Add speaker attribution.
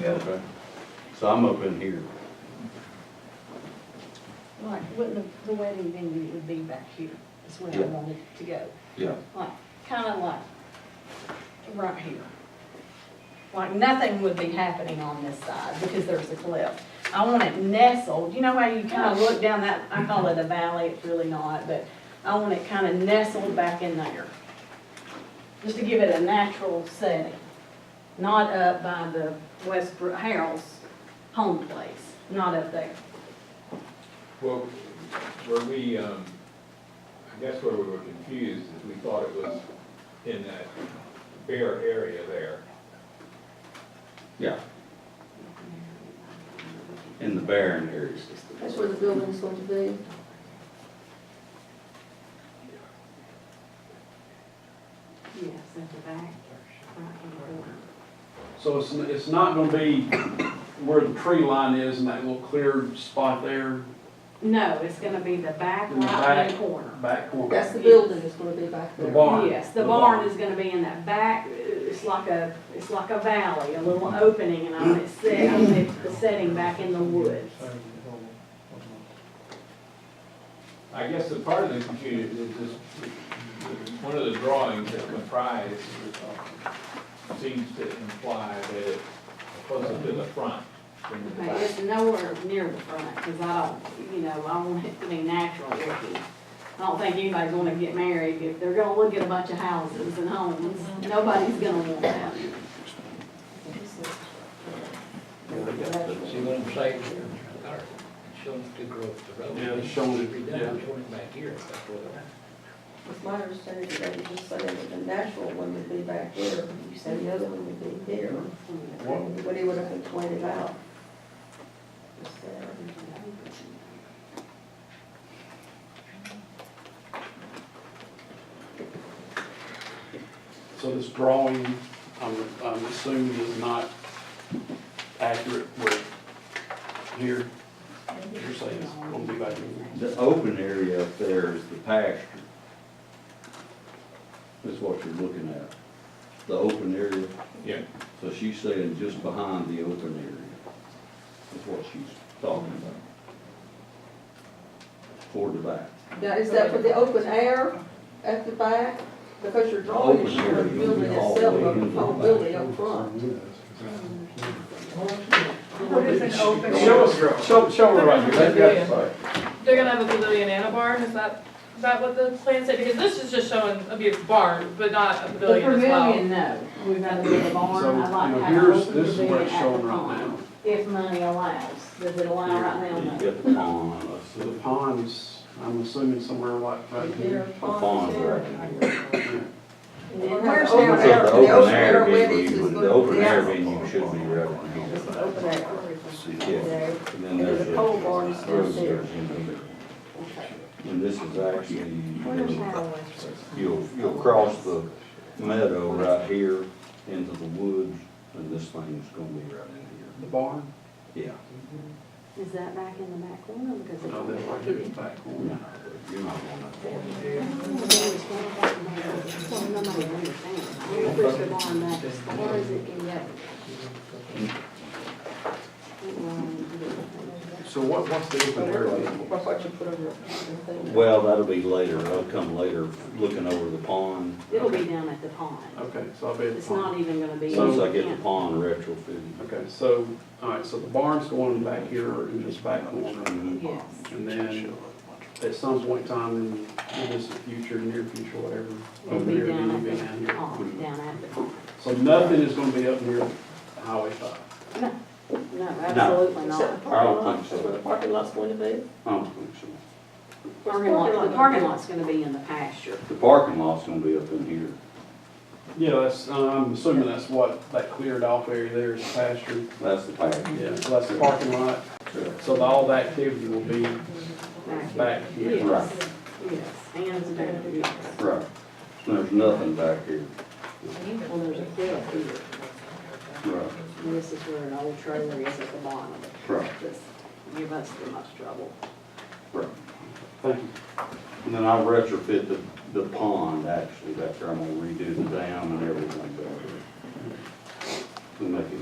Speaker 1: Yeah.
Speaker 2: Okay. So I'm up in here.
Speaker 3: Like, wouldn't the- the wedding venue would be back here, is where I
Speaker 1: Yeah.
Speaker 3: wanted to go.
Speaker 1: Yeah,
Speaker 3: Like, kinda like, right here. Like, nothing would be happening on this side because there's a cliff. I want it nestled, you know how you kinda look down that, I call
Speaker 1: Mm-hmm.
Speaker 3: it a valley, it's really not, but I want it kinda nestled back in there. Just to give it a natural setting, not up by the Westbrook Harold's home place, not up there.
Speaker 4: Well, where we, um, I guess where we were confused is we thought it was in that bare area there.
Speaker 2: Yeah. In the barren areas.
Speaker 5: That's where the building's going to be.
Speaker 3: Yes, at the back, right in the corner.
Speaker 6: So it's, n- it's not gonna be where the tree line is and that little cleared spot there,
Speaker 3: No, it's gonna be the back
Speaker 6: In the
Speaker 3: right in the corner.
Speaker 6: back corner.
Speaker 5: That's the building that's gonna be back
Speaker 6: The
Speaker 5: there.
Speaker 6: barn.
Speaker 3: Yes, the
Speaker 6: The
Speaker 3: barn
Speaker 6: barn.
Speaker 3: is gonna be in that back, it's like a, it's like a valley, a little opening, and I'm, it's set, I'm set- the setting back in the woods.
Speaker 4: I guess the part of the confusion is this, one of the drawings that comprised seems to imply that it's closer to the front than the
Speaker 3: Okay,
Speaker 4: back.
Speaker 3: It's nowhere near the front, cause I don't, you know, I want it to be natural looking. I don't think anybody's gonna get married if they're gonna look at a bunch of houses and homes, nobody's gonna want that.
Speaker 7: See what I'm saying here? Our- Showing the growth of the road.
Speaker 6: Yeah, it's showing it,
Speaker 7: Redone,
Speaker 6: yeah.
Speaker 7: Showing it back here, that's what I-
Speaker 5: It's my understanding that you just said that the natural one would be back there, you said the other one would be here. What he would have pointed out. Just there.
Speaker 6: So this drawing, I'm, I'm assuming is not accurate with here. You're saying it's gonna be back in here.
Speaker 2: The open area up there is the pasture. That's what you're looking at. The open area.
Speaker 4: Yeah.
Speaker 2: So she's saying just behind the open area. That's what she's talking about. Toward the back.
Speaker 5: Now, is that for the open air at the back? Because your drawing is showing the building itself, but the whole building up front.
Speaker 8: What is an open?
Speaker 6: Show us, show, show her right here.
Speaker 8: Pavilion. They're gonna have a pavilion and a barn, is that, is that what the plan said? Because this is just showing a big barn, but not a
Speaker 3: The
Speaker 8: pavilion as well.
Speaker 3: pavilion, no, we've got to get a barn,
Speaker 6: So,
Speaker 3: I'd
Speaker 6: you
Speaker 3: like to
Speaker 6: know,
Speaker 3: have an
Speaker 6: here's,
Speaker 3: open
Speaker 6: this is
Speaker 3: pavilion
Speaker 6: what it's
Speaker 3: at the
Speaker 6: showing right
Speaker 3: pond.
Speaker 6: now.
Speaker 3: If money allows, does it allow right now?
Speaker 2: You
Speaker 3: No.
Speaker 2: got the pond,
Speaker 6: So the pond is, I'm assuming somewhere like right
Speaker 5: Their
Speaker 6: here.
Speaker 2: the pond's right here.
Speaker 5: Where's
Speaker 3: Open
Speaker 5: their-
Speaker 3: air.
Speaker 2: The
Speaker 5: The
Speaker 2: open
Speaker 5: open
Speaker 2: air
Speaker 5: air
Speaker 2: venue,
Speaker 5: weddings
Speaker 2: you
Speaker 5: is
Speaker 2: would-
Speaker 5: going
Speaker 2: the open air
Speaker 5: to
Speaker 2: venue should be right in
Speaker 5: be. It's the
Speaker 2: here.
Speaker 5: open air.
Speaker 2: Yeah. And then
Speaker 5: And
Speaker 2: there's
Speaker 5: the pole barn is
Speaker 2: a
Speaker 5: still
Speaker 2: road there.
Speaker 5: there.
Speaker 2: And this is actually, you'll, you'll cross the meadow right here into the woods, and this thing's gonna be right
Speaker 6: The
Speaker 2: in
Speaker 6: barn?
Speaker 2: here. Yeah.
Speaker 3: Is that back in the back corner? Because it's.
Speaker 6: No, that's right here, the back corner.
Speaker 2: You're not going that far.
Speaker 3: Well, nobody understands. We push the barn back as far as it can go.
Speaker 6: So what, what's the open area?
Speaker 5: That's what you put over your thing.
Speaker 2: Well, that'll be later, I'll come later, looking over the pond,
Speaker 3: It'll be down at the pond.
Speaker 6: Okay, so I'll be at the
Speaker 3: It's
Speaker 6: pond.
Speaker 3: not even gonna be.
Speaker 2: once I get the pond retrofitted.
Speaker 6: Okay, so, all right, so the barn's going back here and just back corner.
Speaker 2: Mhm.
Speaker 3: Yes.
Speaker 6: And then at some point in time in in this future, near future, whatever.
Speaker 3: It'll
Speaker 6: over
Speaker 3: be
Speaker 6: there, it'll
Speaker 3: down
Speaker 6: be
Speaker 3: at the
Speaker 6: down
Speaker 3: pond,
Speaker 6: here.
Speaker 3: down at the pond.
Speaker 6: So nothing is gonna be up near Highway five.
Speaker 3: No, absolutely
Speaker 5: Except the
Speaker 3: not.
Speaker 5: parking
Speaker 2: I don't
Speaker 5: lot,
Speaker 2: think so.
Speaker 5: where the parking lot's going to be.
Speaker 2: I don't think so.
Speaker 3: Parking lot, the parking lot's gonna be in the pasture.
Speaker 2: The parking lot's gonna be up in here.
Speaker 6: Yeah, that's, uh, I'm assuming that's what, that cleared off area there is pasture.
Speaker 2: That's the path.
Speaker 6: Yeah, so that's the parking lot. So the- all the activity will be back here.
Speaker 2: Right.
Speaker 3: Yes, yes, and it's down here, yes.
Speaker 2: Right. There's nothing back here.
Speaker 3: Well, there's a cliff here,
Speaker 2: Right.
Speaker 3: and this is where an old trailer is at the bottom of it.
Speaker 2: Right.
Speaker 3: Just give us the most trouble.
Speaker 2: Right.
Speaker 6: Thank you.
Speaker 2: And then I retrofit the, the pond, actually, back there, I'm gonna redo the dam and everything back there. To make